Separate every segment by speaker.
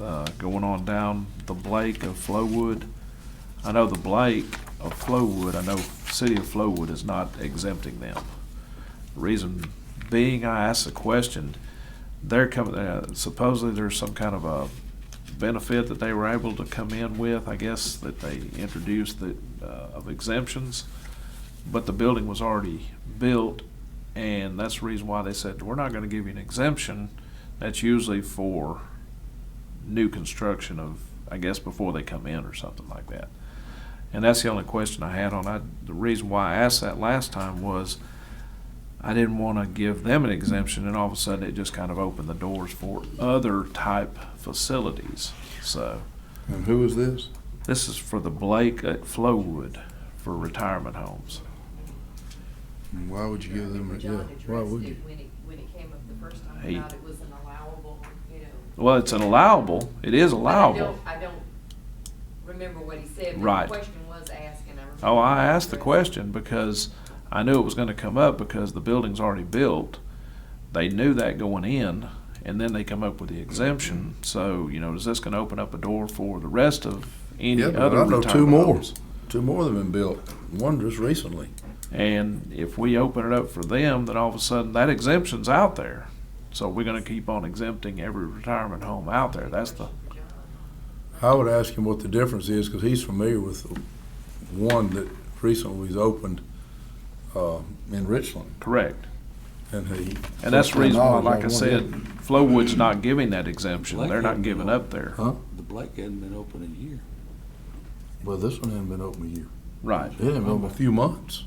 Speaker 1: uh, going on down the Blake of Flowood. I know the Blake of Flowood, I know City of Flowood is not exempting them. Reason being, I asked the question, they're coming, uh, supposedly there's some kind of a benefit that they were able to come in with, I guess, that they introduced that, uh, of exemptions. But the building was already built, and that's the reason why they said, we're not gonna give you an exemption. That's usually for new construction of, I guess, before they come in or something like that. And that's the only question I had on, I, the reason why I asked that last time was I didn't wanna give them an exemption and all of a sudden it just kind of opened the doors for other type facilities. So,
Speaker 2: And who is this?
Speaker 1: this is for the Blake at Flowood for retirement homes.
Speaker 2: And why would you give them, a- yeah,
Speaker 3: John
Speaker 2: why
Speaker 3: addressed
Speaker 2: would you?
Speaker 3: it when it, when it came up the first
Speaker 1: Hey.
Speaker 3: time about it was an allowable, you know.
Speaker 1: Well, it's an allowable, it is
Speaker 3: But I don't-
Speaker 1: allowable.
Speaker 3: I don't remember what he said, but
Speaker 1: Right.
Speaker 3: the question was asked and I remember.
Speaker 1: Oh, I asked the question because I knew it was gonna come up because the building's already built. They knew that going in, and then they come up with the exemption, so, you know, is this gonna open up a door for the rest of any
Speaker 2: Yeah, but
Speaker 1: other
Speaker 2: I know two
Speaker 1: retirement
Speaker 2: more,
Speaker 1: homes?
Speaker 2: two more that have been built, one just recently.
Speaker 1: And if we open it up for them, then all of a sudden that exemption's out there. So we're gonna keep on exempting every retirement home out there, that's the,
Speaker 2: I would ask him what the difference is, because he's familiar with one that recently was opened, uh, in Richland,
Speaker 1: correct.
Speaker 2: and he.
Speaker 1: And that's the reason why, like I said,
Speaker 2: Knowledge
Speaker 1: Flowwood's not giving that exemption, they're not giving up there,
Speaker 2: Huh?
Speaker 4: The Blake hadn't been open a year.
Speaker 2: Well, this one hasn't been open a year,
Speaker 1: right.
Speaker 2: it hasn't been open a few months.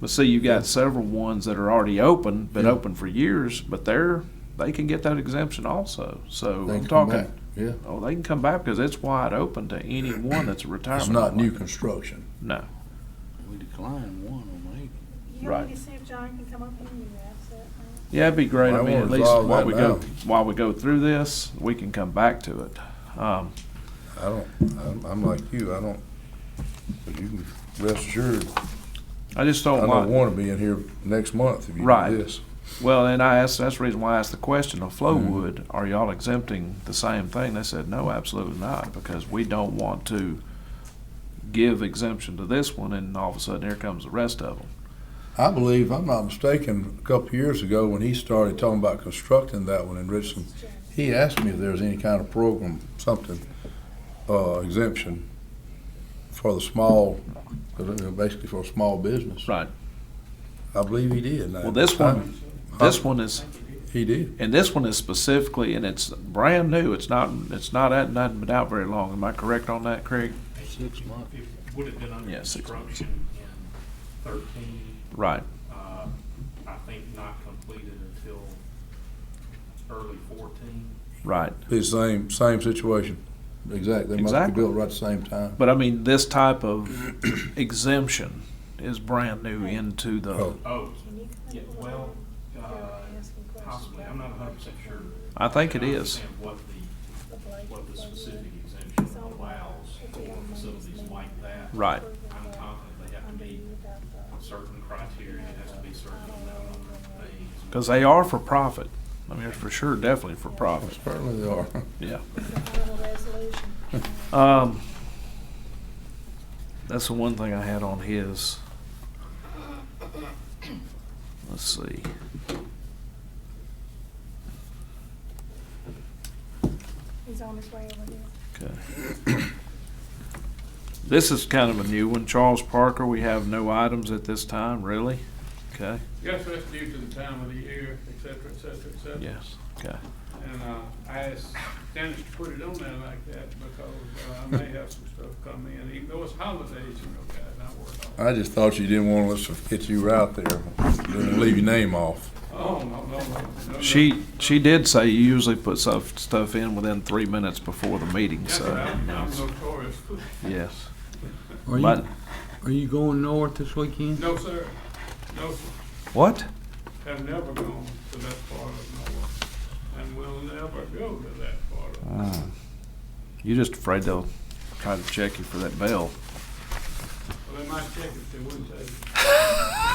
Speaker 1: But see, you've got several ones that are already open, been
Speaker 2: Yeah.
Speaker 1: open for years, but they're, they can get that exemption also. So
Speaker 2: They
Speaker 1: I'm
Speaker 2: can come
Speaker 1: talking,
Speaker 2: back. Yeah,
Speaker 1: oh, they can come back because it's wide open to anyone that's a retirement.
Speaker 2: it's not
Speaker 1: home.
Speaker 2: new construction.
Speaker 1: No,
Speaker 4: We declined one on eight.
Speaker 5: You
Speaker 1: Right.
Speaker 5: want me to see if John can come up with you, that's it. Um,
Speaker 1: yeah, it'd be great.
Speaker 2: Well,
Speaker 1: I
Speaker 2: I
Speaker 1: mean,
Speaker 2: wanna
Speaker 1: at least
Speaker 2: resolve
Speaker 1: while
Speaker 2: that
Speaker 1: we go,
Speaker 2: now.
Speaker 1: while we go through this, we can come back to it. Um,
Speaker 2: I don't, I'm, I'm like you, I don't, but you can rest assured,
Speaker 1: I just
Speaker 2: I
Speaker 1: don't
Speaker 2: don't
Speaker 1: want,
Speaker 2: wanna be in here next month if you
Speaker 1: Right.
Speaker 2: do this.
Speaker 1: well, and I asked, that's the reason why I asked the question of
Speaker 2: Mm-hmm.
Speaker 1: Flowwood, are y'all exempting the same thing? They said, no, absolutely not, because we don't want to give exemption to this one and all of a sudden here comes the rest of them.
Speaker 2: I believe, if I'm not mistaken, a couple years ago, when he started talking about constructing that one in Richland, he asked me if there was any kind of program, something, uh, exemption for the small, basically for a small business.
Speaker 1: Right.
Speaker 2: I believe he did. Now,
Speaker 1: Well, this one, this one is,
Speaker 2: He did.
Speaker 1: and this one is specifically, and it's brand new. It's not, it's not, it hasn't been out very long. Am I correct on that, Craig?
Speaker 4: Six months.
Speaker 6: It would have been under
Speaker 1: Yeah, six months.
Speaker 6: construction in thirteen,
Speaker 1: Right.
Speaker 6: uh, I think not completed until early fourteen.
Speaker 1: Right.
Speaker 2: The same, same situation. Exactly. They must be
Speaker 1: Exactly.
Speaker 2: built right at the same time.
Speaker 1: But I mean, this type of exemption is brand new into the,
Speaker 2: Oh.
Speaker 6: Oh,
Speaker 5: Can you
Speaker 6: yeah,
Speaker 5: come up with
Speaker 6: well,
Speaker 5: him?
Speaker 6: uh,
Speaker 5: Yeah, ask him questions
Speaker 6: possibly,
Speaker 5: about
Speaker 6: I'm not hundred percent sure.
Speaker 1: I think it
Speaker 6: And I
Speaker 1: is.
Speaker 6: understand What the,
Speaker 5: the Blake
Speaker 6: what the
Speaker 5: plug-in.
Speaker 6: specific exemption allows for facilities like that.
Speaker 1: Right.
Speaker 6: I'm confident they have to
Speaker 5: Under
Speaker 6: meet
Speaker 5: you about the-
Speaker 6: certain criteria, it has to be certain amount of things.
Speaker 1: because they are for profit. I mean, for sure, definitely for profit.
Speaker 2: Apparently they are.
Speaker 1: Yeah.
Speaker 5: the final resolution.
Speaker 1: Um, that's the one thing I had on his. Let's see.
Speaker 5: He's on his way over there.
Speaker 1: Okay. This is kind of a new one. Charles Parker, we have no items at this time, really? Okay,
Speaker 7: Yes, that's due to the time of the year, et cetera, et cetera, et cetera.
Speaker 1: yes, okay.
Speaker 7: And uh, I asked Dennis to put it on there like that because uh, I may have some stuff come in, even though it's holidays, you know, guys, and I work all.
Speaker 2: I just thought you didn't want us to get you out there. Didn't leave your name off.
Speaker 7: Oh, no, no, no, no.
Speaker 1: She, she did say you usually put stuff, stuff in within three minutes before the meeting,
Speaker 7: Yes, sir,
Speaker 1: so,
Speaker 7: I'm I'm notorious.
Speaker 1: yes.
Speaker 8: Are
Speaker 1: But,
Speaker 8: you, are you going north this weekend?
Speaker 7: No, sir, no, sir.
Speaker 1: what?
Speaker 7: have never gone to that part of Norfolk and will never go to that part
Speaker 1: Ah.
Speaker 7: of Norfolk.
Speaker 1: You just afraid they'll try to check you for that bell.
Speaker 7: Well, they might check if they wouldn't take it.